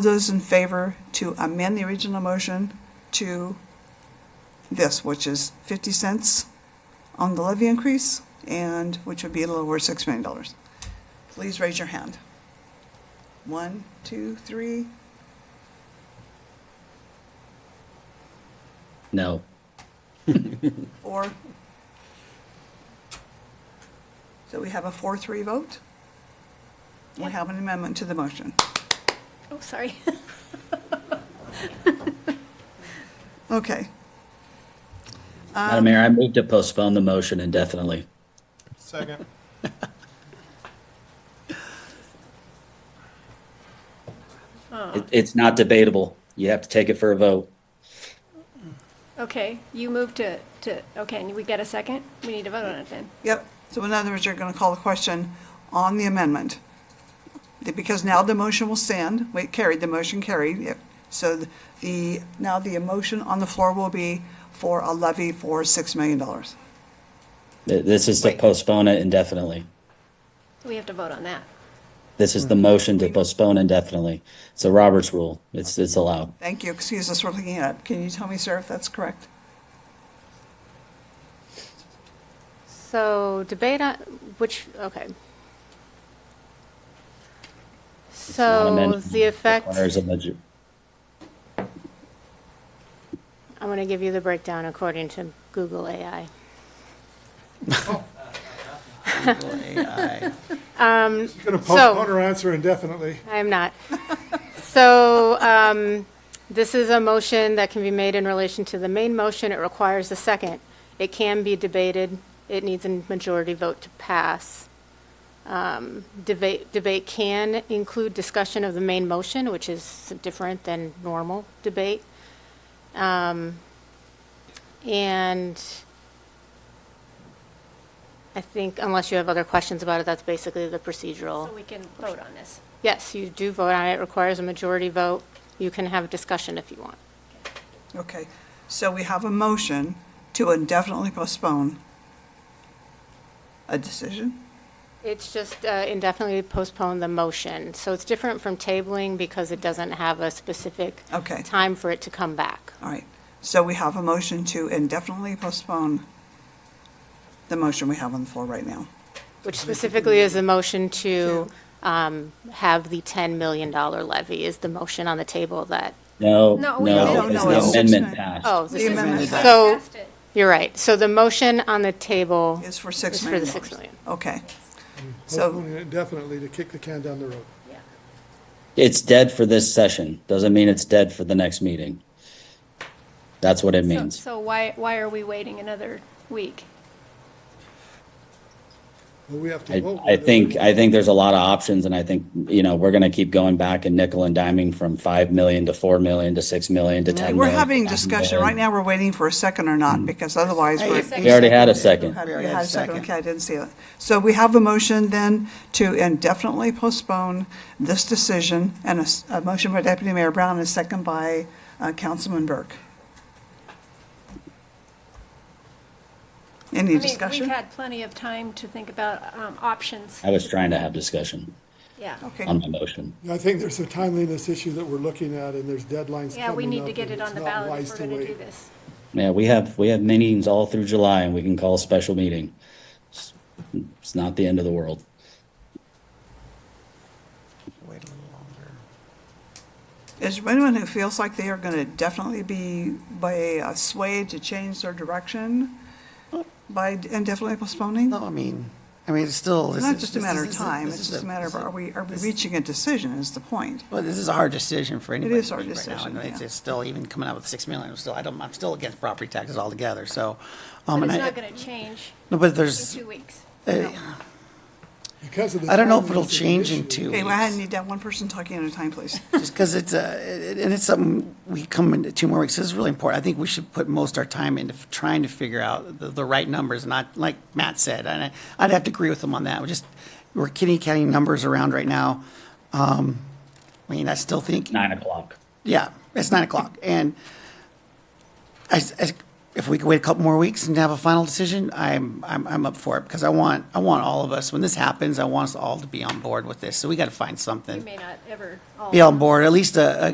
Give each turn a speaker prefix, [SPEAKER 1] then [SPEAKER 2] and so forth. [SPEAKER 1] Those in favor to amend the original motion to this, which is 50 cents on the levy increase, and which would be a little over $6 million. Please raise your hand. One, two, three.
[SPEAKER 2] No.
[SPEAKER 1] Four. So we have a four-three vote. We have an amendment to the motion.
[SPEAKER 3] Oh, sorry.
[SPEAKER 1] Okay.
[SPEAKER 2] Madam Mayor, I move to postpone the motion indefinitely.
[SPEAKER 4] Second.
[SPEAKER 2] It- It's not debatable. You have to take it for a vote.
[SPEAKER 3] Okay, you moved to, to, okay, and we get a second? We need to vote on it then.
[SPEAKER 1] Yep, so in other words, you're gonna call the question on the amendment. Because now the motion will stand, wait, carried, the motion carried, yep. So the, now the motion on the floor will be for a levy for six million dollars.
[SPEAKER 2] Th- This is to
[SPEAKER 1] Wait.
[SPEAKER 2] postpone it indefinitely.
[SPEAKER 3] We have to vote on that.
[SPEAKER 2] This is the motion to postpone indefinitely. It's a Roberts rule. It's, it's allowed.
[SPEAKER 1] Thank you, excuse us for looking it up. Can you tell me, sir, if that's correct?
[SPEAKER 5] So debate on which, okay.
[SPEAKER 2] Not
[SPEAKER 5] So
[SPEAKER 2] amended.
[SPEAKER 5] Oh, the effect,
[SPEAKER 2] Requires a maj-
[SPEAKER 5] I'm going to give you the breakdown according to Google AI.
[SPEAKER 4] Oh. She's going to
[SPEAKER 5] Um, So-
[SPEAKER 4] postpone her answer indefinitely.
[SPEAKER 5] I am not. So um, this is a motion that can be made in relation to the main motion. It requires a second. It can be debated. It needs a majority vote to pass. Um, Debate, debate can include discussion of the main motion, which is different than normal debate. Um, And I think unless you have other questions about it, that's basically the procedural.
[SPEAKER 3] So we can vote on this.
[SPEAKER 5] Yes, you do vote on it. It requires a majority vote. You can have a discussion if you want.
[SPEAKER 1] Okay, so we have a motion to indefinitely postpone a decision?
[SPEAKER 5] It's just uh, indefinitely postpone the motion. So it's different from tabling because it doesn't have a specific
[SPEAKER 1] Okay.
[SPEAKER 5] time for it to come back.
[SPEAKER 1] All right, so we have a motion to indefinitely postpone the motion we have on the floor right now.
[SPEAKER 5] Which specifically is the motion to um, have the $10 million levy is the motion on the table that,
[SPEAKER 2] No,
[SPEAKER 3] No,
[SPEAKER 2] no,
[SPEAKER 3] we
[SPEAKER 1] don't
[SPEAKER 2] because
[SPEAKER 1] know. It's
[SPEAKER 2] the
[SPEAKER 1] six
[SPEAKER 2] amendment
[SPEAKER 1] mi-
[SPEAKER 2] passed.
[SPEAKER 5] oh,
[SPEAKER 1] The
[SPEAKER 5] this is,
[SPEAKER 1] amendment.
[SPEAKER 5] so, you're right. So the motion on the table,
[SPEAKER 1] It's for six
[SPEAKER 5] It's for
[SPEAKER 1] million.
[SPEAKER 5] the six
[SPEAKER 1] dollars.
[SPEAKER 5] million.
[SPEAKER 1] Okay, So-
[SPEAKER 4] Postponing it indefinitely to kick the can down the road.
[SPEAKER 2] It's dead for this session. Doesn't mean it's dead for the next meeting. That's what it
[SPEAKER 3] So,
[SPEAKER 2] means.
[SPEAKER 3] so why, why are we waiting another week?
[SPEAKER 4] Well, we have to
[SPEAKER 2] I,
[SPEAKER 4] vote.
[SPEAKER 2] I
[SPEAKER 4] whether we
[SPEAKER 2] think,
[SPEAKER 4] want-
[SPEAKER 2] I think there's a lot of options and I think, you know, we're gonna keep going back and nickel and diming from five million to four million to six million to ten
[SPEAKER 1] we're
[SPEAKER 2] million.
[SPEAKER 1] having discussion, right now we're waiting for a second or not, because otherwise we're.
[SPEAKER 2] We already had a second.
[SPEAKER 1] Had- we had a second, okay, I didn't see it. So we have a motion then to indefinitely postpone this decision, and a, s- a motion by Deputy Mayor Brown and a second by uh, Councilman Burke. Any
[SPEAKER 3] I mean,
[SPEAKER 1] discussion?
[SPEAKER 3] we've had plenty of time to think about um, options.
[SPEAKER 2] I was trying to have discussion
[SPEAKER 3] Yeah.
[SPEAKER 1] Okay.
[SPEAKER 2] on my motion.
[SPEAKER 4] I think there's a timeliness issue that we're looking at and there's deadlines coming up.
[SPEAKER 3] Yeah, we need to get it
[SPEAKER 4] and it's
[SPEAKER 3] on the
[SPEAKER 4] not
[SPEAKER 3] ballot
[SPEAKER 4] wise
[SPEAKER 3] if we're
[SPEAKER 4] to
[SPEAKER 3] going to do
[SPEAKER 4] wait.
[SPEAKER 3] this.
[SPEAKER 2] Yeah, we have, we have meetings all through July and we can call a special meeting. It's- It's not the end of the world.
[SPEAKER 6] Wait a little longer.
[SPEAKER 1] Is there anyone who feels like they are going to definitely be by a sway to change their direction by indefinitely postponing?
[SPEAKER 6] No, I mean, I mean, it's still.
[SPEAKER 1] It's
[SPEAKER 6] this
[SPEAKER 1] not
[SPEAKER 6] is-
[SPEAKER 1] just a
[SPEAKER 6] this
[SPEAKER 1] matter of
[SPEAKER 6] is-
[SPEAKER 1] time,
[SPEAKER 6] this
[SPEAKER 1] it's
[SPEAKER 6] is
[SPEAKER 1] just a matter of
[SPEAKER 6] this is-
[SPEAKER 1] are we, are we
[SPEAKER 6] this-
[SPEAKER 1] reaching a decision is the point.
[SPEAKER 6] Well, this is a hard decision for anybody.
[SPEAKER 1] is a hard
[SPEAKER 6] right now,
[SPEAKER 1] decision,
[SPEAKER 6] and it's-
[SPEAKER 1] yeah.
[SPEAKER 6] It's still, even coming out with six million, I'm still, I don't, I'm still against property taxes altogether, so. um,
[SPEAKER 3] But
[SPEAKER 6] and
[SPEAKER 3] it's
[SPEAKER 6] I-
[SPEAKER 3] not going to change
[SPEAKER 6] No, but
[SPEAKER 3] in
[SPEAKER 6] there's,
[SPEAKER 3] two weeks.
[SPEAKER 6] uh,
[SPEAKER 4] Because of the.
[SPEAKER 6] I don't know if it'll
[SPEAKER 4] timeliness of the
[SPEAKER 6] change in
[SPEAKER 4] issue.
[SPEAKER 6] two
[SPEAKER 1] Okay, well, I
[SPEAKER 6] weeks.
[SPEAKER 1] need that one person talking at a time, please.
[SPEAKER 6] just because it's a, and it's something we come into two more weeks. This is really important. I think we should put most our time into f- trying to figure out the, the right numbers, not like Matt said. And I, I'd have to agree with him on that. We just we're kitty catting numbers around right now. Um, I mean, I still think
[SPEAKER 2] Nine o'clock.
[SPEAKER 6] yeah, it's nine o'clock, and I, s- I s- if we could wait a couple more weeks and have a final decision, I'm, I'm, I'm up for it, because I want, I want all of us, when this happens, I want us all to be on board with this, so we gotta find
[SPEAKER 3] We
[SPEAKER 6] something.
[SPEAKER 3] may not ever all.
[SPEAKER 6] Be on board, at least a, a,